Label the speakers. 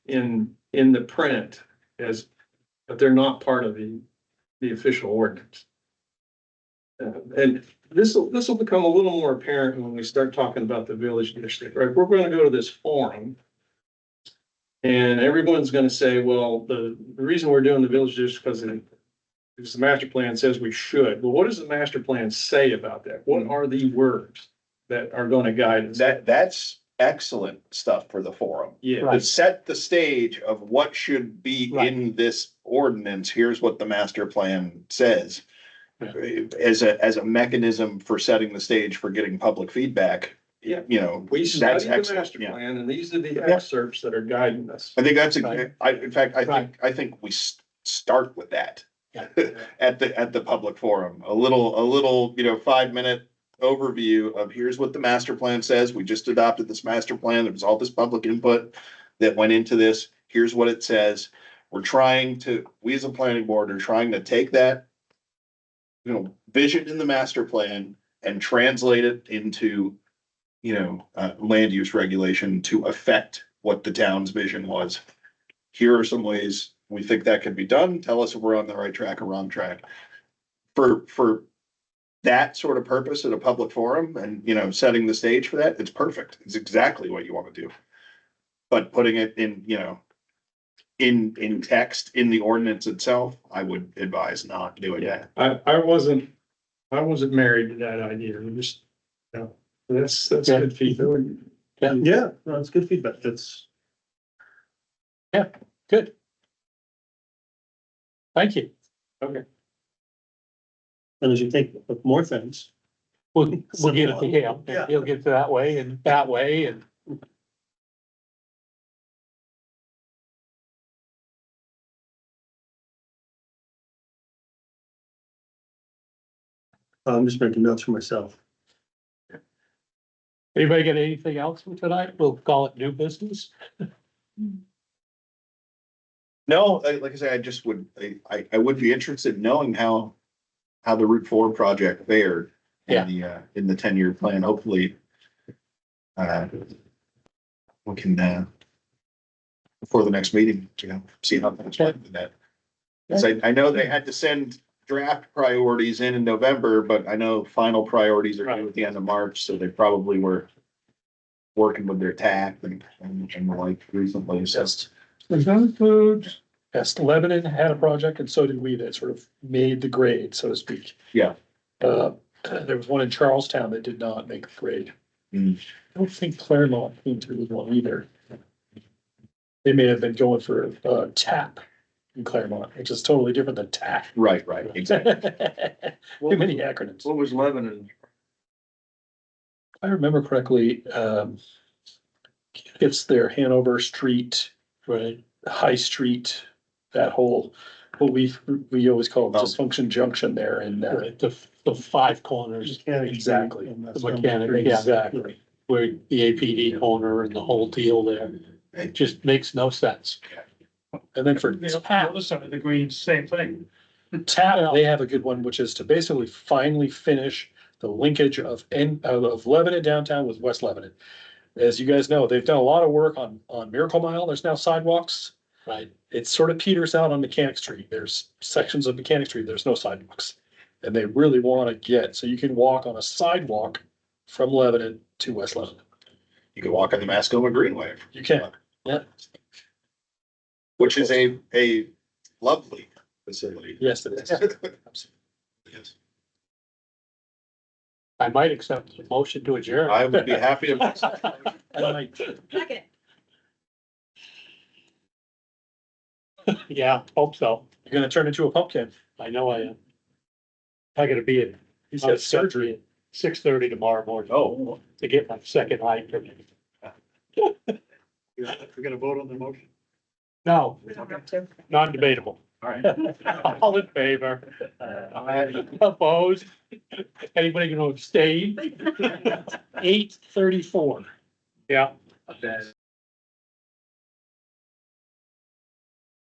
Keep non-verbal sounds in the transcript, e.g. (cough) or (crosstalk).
Speaker 1: in, in the print as, but they're not part of the, the official ordinance. Uh, And this will, this will become a little more apparent when we start talking about the village district, right? We're gonna go to this forum. And everyone's gonna say, well, the, the reason we're doing the village district is because it- because the master plan says we should. Well, what does the master plan say about that? What are the words that are gonna guide us?
Speaker 2: That, that's excellent stuff for the forum.
Speaker 1: Yeah,
Speaker 2: To set the stage of what should be
Speaker 3: Right.
Speaker 2: in this ordinance, here's what the master plan says.
Speaker 1: Yeah.
Speaker 2: As a, as a mechanism for setting the stage for getting public feedback.
Speaker 1: Yeah.
Speaker 2: You know.
Speaker 1: we
Speaker 2: that's
Speaker 1: study the
Speaker 2: excellent,
Speaker 1: master
Speaker 2: yeah.
Speaker 1: plan and these are the
Speaker 2: Yeah.
Speaker 1: excerpts that are guiding
Speaker 2: (laughs)
Speaker 1: us.
Speaker 2: I think that's,
Speaker 3: Right.
Speaker 2: a- I, in fact, I
Speaker 3: Right.
Speaker 2: think, I think we s- start with that.
Speaker 3: Yeah.
Speaker 2: At the, at the public forum, a little, a little, you know, five minute overview of here's what the master plan says. We just adopted this master plan. There was all this public input that went into this. Here's what it says. We're trying to, we as a planning board are trying to take that, you know, vision in the master plan and translate it into, you know, uh, land use regulation to affect what the town's vision was. Here are some ways we think that could be done. Tell us if we're on the right track or wrong track. For, for that sort of purpose at a public forum and, you know, setting the stage for that, it's perfect. It's exactly what you want to do. But putting it in, you know, in, in text, in the ordinance itself, I would advise not doing that.
Speaker 1: I, I wasn't, I wasn't married to that idea, we just, you know, that's, that's
Speaker 3: Yeah.
Speaker 1: good feedback.
Speaker 4: Yeah, no, it's good feedback. That's,
Speaker 3: Good. Thank you.
Speaker 4: and as you think of more things,
Speaker 3: We'll, we'll get it to him.
Speaker 4: Yeah.
Speaker 3: and He'll get it that way and that way and.
Speaker 4: I'm just making notes for myself.
Speaker 3: Anybody got anything else for tonight? We'll call it new business.
Speaker 2: No, I- like I say, I just would, I- I, I would be interested in knowing how, how the Route Four project fared.
Speaker 3: Yeah.
Speaker 2: In the, uh, in the ten-year plan, hopefully. Uh, we can, uh, before the next meeting, you know, see how things went with that. 'Cause I, I know they had to send draft priorities in in November, but I know final priorities are due at the end of March, so they probably were working with their tack and, and and the like recently, so.
Speaker 3: Yes. Does that include? Yes, Lebanon had a project and so did we that sort of made the grade, so to speak.
Speaker 2: Yeah.
Speaker 3: Uh, there was one in Charlestown that did not make the grade.
Speaker 2: Hmm.
Speaker 3: I don't think Claremont came through with one either. They may have been going for uh tap in Claremont, which is totally different than tack.
Speaker 2: Right, right, exactly.
Speaker 3: (laughs) Too many acronyms.
Speaker 1: What was Lebanon?
Speaker 3: I remember correctly, um, it's their Hanover Street. Right. High Street, that whole, what we, we always call
Speaker 2: Oh.
Speaker 3: dysfunction junction there and. uh, The, the five corners. Exactly. The mechanic, yeah, exactly. Where the APD corner and the whole deal there, it just makes no sense. And then for tap,
Speaker 5: Listen, the Green's same thing.
Speaker 3: tap, they have a good one, which is to basically finally finish the linkage of in, of- of Lebanon downtown with West Lebanon. As you guys know, they've done a lot of work on, on Miracle Mile. There's now sidewalks. Right. It sort of peters out on Mechanic Street. There's sections of Mechanic Street. There's no sidewalks. And they really want to get, so you can walk on a sidewalk from Lebanon to West Lebanon.
Speaker 2: You can walk on the Mascoma Greenway,
Speaker 3: You can.
Speaker 2: which is a, a lovely facility.
Speaker 3: Yes,
Speaker 2: (laughs)
Speaker 3: it is.
Speaker 2: Yes.
Speaker 3: I might accept the motion to adjourn.
Speaker 2: I would be happy to.
Speaker 6: Second.
Speaker 3: Yeah, hope so. You're gonna turn into a pumpkin. I know I am. I gotta be in. He's got surgery at six thirty tomorrow morning
Speaker 2: Oh.
Speaker 3: to get my second eye permit.
Speaker 5: We're gonna vote on the motion.
Speaker 3: No,
Speaker 6: We don't have to.
Speaker 3: non-debatable.
Speaker 5: All right.
Speaker 3: (laughs) All in favor? Opposed? Anybody
Speaker 5: (laughs)
Speaker 3: gonna abstain? Eight thirty-four. Yeah.